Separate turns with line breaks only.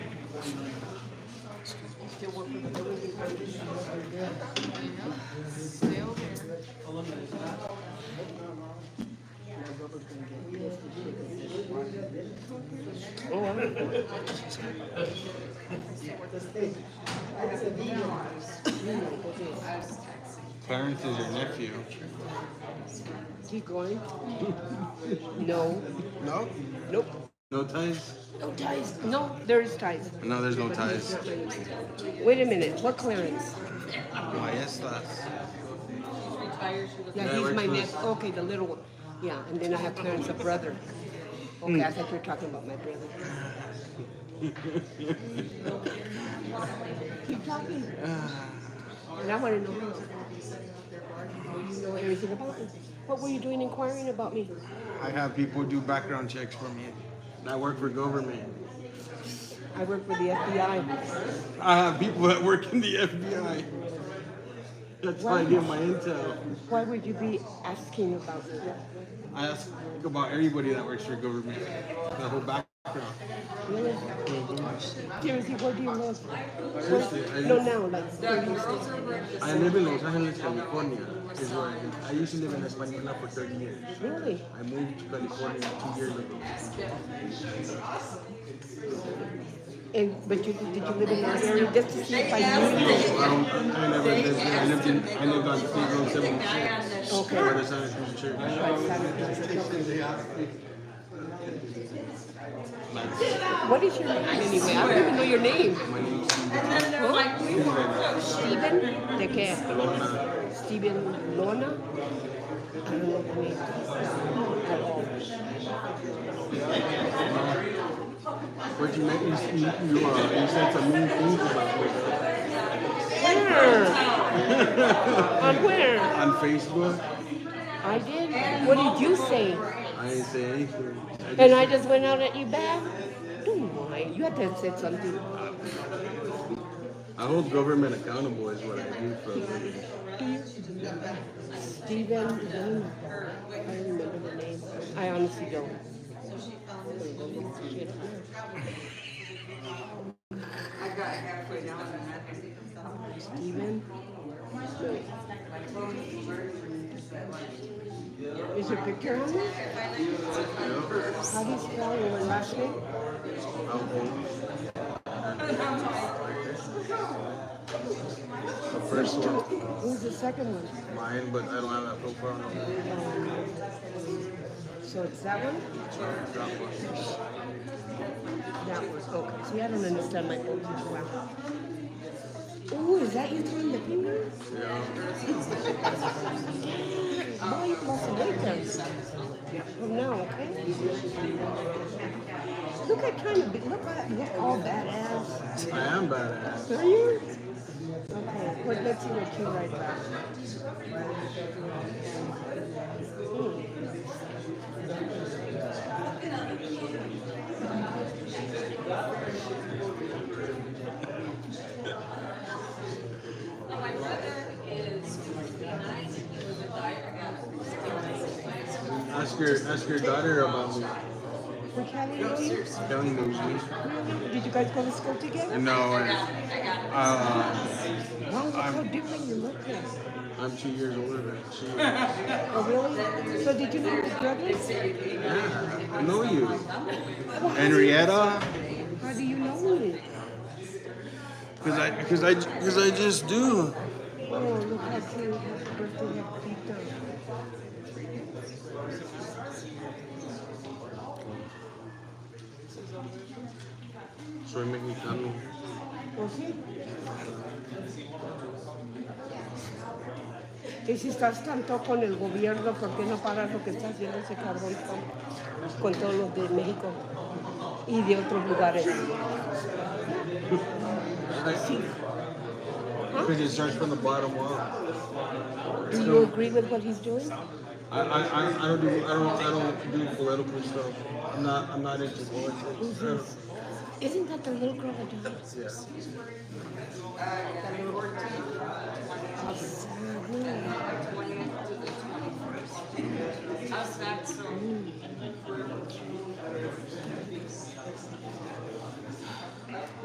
Still working with the building permit.
I know, still there.
Clarence is your nephew.
Keep going. No,
No?
nope.
No ties?
No ties. No, there is ties.
No, there's no ties.
Wait a minute, what Clarence?
Maestras.
Retired, she was
Yeah,
Yeah,
he's
where's
my
Clarence?
next, okay, the little one. Yeah, and then I have Clarence, a brother. Okay, I thought you were talking about my brother. Keep talking. And I wanna know. Do Oh, you know anything about me? What were you doing inquiring about me?
I have people do background checks for me. And I work for government.
I work for the FBI.
I have people that work in the FBI. That's why I get my intel.
Why would you be asking about me?
I ask about everybody that works for government. The whole background.
Really? Seriously, where do you live?
Seriously, I-
No, now, like, where do you stay?
over at the
I live in Los Angeles, California. Is where I, live. I used to live in Española for 30 years.
Really?
I moved to California two years ago.
And, but you, did you live in that area just to see if I
No,
knew you?
I, don't, I never lived there. I lived, in, I lived on State Road 76.
Okay.
Where the Santa Cruz Church.
What is your name anyway? I don't even know your name. Huh? Steven? ¿De qué? Steven Lona? I don't know the name at all.
But you, meant, you, you, you, uh, you said some mean things about me
Where? On where?
on Facebook.
I did. What did you say?
I didn't say anything.
And I just went out at you back? Don't mind. You had to have said something.
I hold government accountable is what I do for a living.
Steven Luna. I don't remember the name. I honestly don't.
I got halfway down and I think
Steven? Is your picture on there? How do you spell your last name?
I'll hold. The first one,
Who's the second one?
mine, but I don't have that profile number.
So it's that one?
That one.
That one, okay. See, I don't understand my own wow. Ooh, is that you throwing the finger?
Yeah.
Why you lost weight then? From now, okay? Look at kind of, big- look at, look all badass.
I am badass.
Are you? Okay, well, let's see what you write back.
My brother is fifty-nine, he was a dyer,
Ask your, ask your daughter about me.
Were Callie know you?
Kelly knows me.
Really? Did you guys go to school together?
No, uh,
Wow, look how different you look like.
I'm two years older than she. is.
Oh, really? So did you know your brothers?
Yeah, I know you. Henrietta?
How do you know me?
Cause I, cause I, cause I just do.
Oh, look how cute. Happy birthday, happy birthday.
Soy mexicano.
¿O sí? Y si estás tanto con el gobierno, ¿por qué no paras lo que está haciendo ese cabrón con, con todos los de México y de otros lugares?
Because it starts from the bottom up.
Do you agree with what he's doing?
I, I, I, I don't do, I don't, I don't do political stuff. I'm not, I'm not into politics. I don't-
Isn't that the little girl that died?
Yeah.
How sad, no.
How's that so?